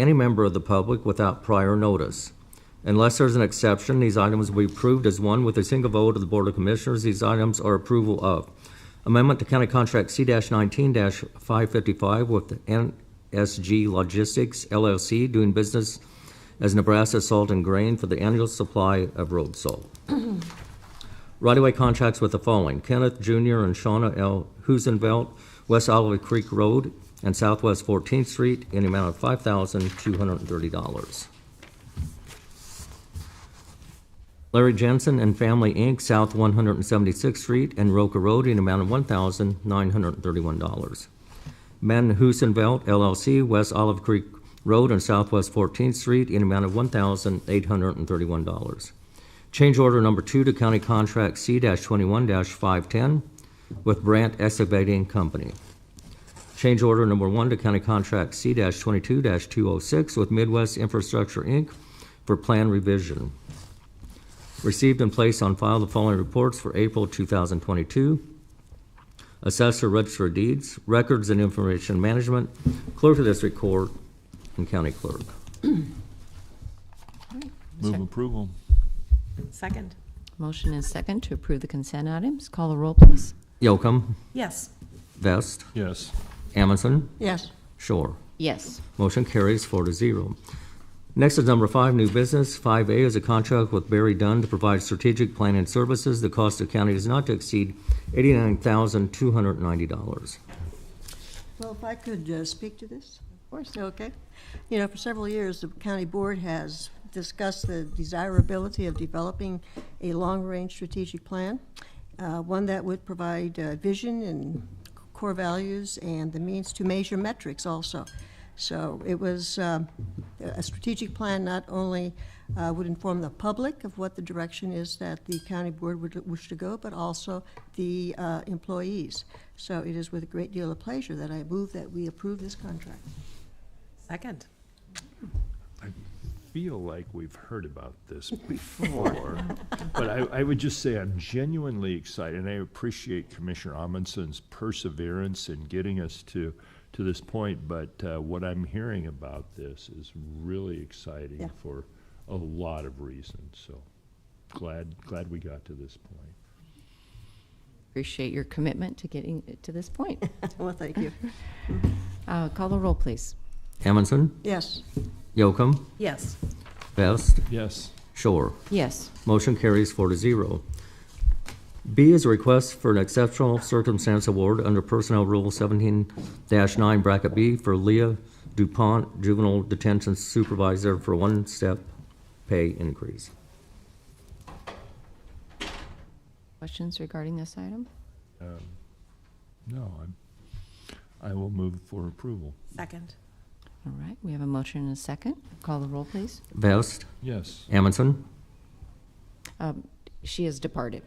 any member of the public without prior notice. Unless there's an exception, these items will be approved as one with a single vote of the Board of Commissioners. These items are approval of amendment to County Contract C-19-555 with NSG Logistics LLC doing business as Nebraska Salt and Grain for the annual supply of road salt. Right-of-way contracts with the following: Kenneth Jr. and Shauna L. Husenvelt, West Olive Creek Road and Southwest 14th Street, in the amount of $5,230. Larry Jensen and Family, Inc., South 176th Street and Roca Road, in the amount of $1,931. Men Husenvelt LLC, West Olive Creek Road and Southwest 14th Street, in the amount of $1,831. Change order number two to county contract C-21-510 with Brandt Excavating Company. Change order number one to county contract C-22-206 with Midwest Infrastructure, Inc. for plan revision. Received and placed on file the following reports for April 2022. Assessor Register of Deeds, Records and Information Management, Clerk of District Court, and County Clerk. Move approval. Second. Motion and second to approve the consent items. Call the roll, please. Yocum, Yes. Vest, Yes. Amundson, Yes. Shore. Yes. Motion carries four to zero. Next is number five, new business. Five A is a contract with Barry Dunn to provide strategic planning services. The cost of county is not to exceed eighty-nine thousand two hundred and ninety dollars. Well, if I could uh, speak to this? Of course. Okay. You know, for several years, the county board has discussed the desirability of developing a long-range strategic plan, uh, one that would provide uh, vision and core values and the means to measure metrics also. So it was, um, a strategic plan not only uh, would inform the public of what the direction is that the county board would wish to go, but also the uh, employees. So it is with a great deal of pleasure that I move that we approve this contract. Second. Feel like we've heard about this before, but I, I would just say I'm genuinely excited, and I appreciate Commissioner Amundsen's perseverance in getting us to, to this point, but uh, what I'm hearing about this is really Yeah. exciting for a lot of reasons, so glad, glad we got to this point. Appreciate your commitment to getting it to this point. Well, thank you. Uh, Call the roll, please. Amundson, Yes, Yocum, Yes. Vest, Yes. Shore. Yes. Motion carries four to zero. B is a request for an exceptional circumstance award under Personnel Rule seventeen nine bracket B for Leah DuPont, Juvenile Detention Supervisor, for one-step pay increase. Questions regarding this item? No, I'm, I will move for approval. Second. All right, we have a motion and a second. Call the roll, please. Vest, Yes. Amundson, Um, She has departed.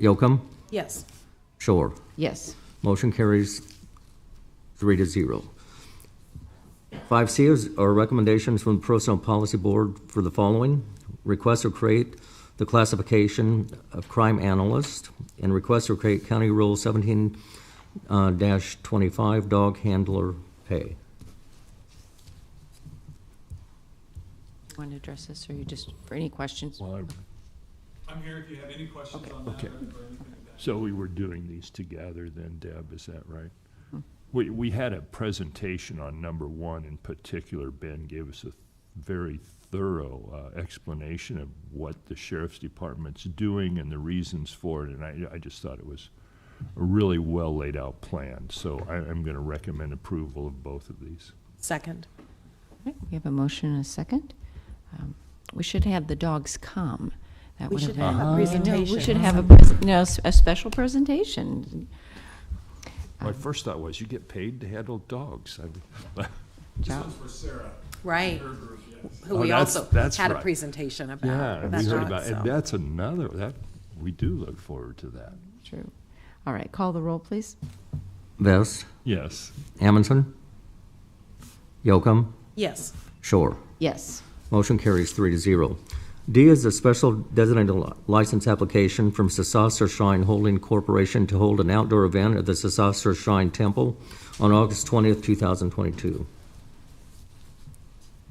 Yocum, Yes. Shore. Yes. Motion carries three to zero. Five C is our recommendations from the Personnel Policy Board for the following. Request to create the classification of crime analyst and request to create County Rule seventeen uh, dash twenty-five dog handler pay. Want to address this, or you just, for any questions? Well, I- I'm here if you have any questions on that or or Okay. anything like that. So we were doing these together then, Deb, is that right? Hmm. We, we had a presentation on number one in particular. Ben gave us a very thorough uh, explanation of what the sheriff's department's doing and the reasons for it. And I, I just thought it was a really well laid out plan. So I, I'm going to recommend approval of both of these. Second. All right, We have a motion and a second. Um, We should have the dogs come. That We would should have a been- No, presentation. We should have a, pres- no, s- a special presentation. My first thought was, you get paid to handle dogs. I- This Yeah. one's for Sarah. Right. Her group, yes. Who Oh, we that's- also that's had a right. presentation about. Yeah, and we That's heard right, about, so. and that's another, that, we do look forward to that. True. All right, call the roll, please. Vest, Yes. Amundson, Yocum, Yes. Shore. Yes. Motion carries three to zero. D is a special designated li- license application from Sasasar Shrine Holding Corporation to hold an outdoor event at the Sasasar Shrine Temple on August 20th, 2022.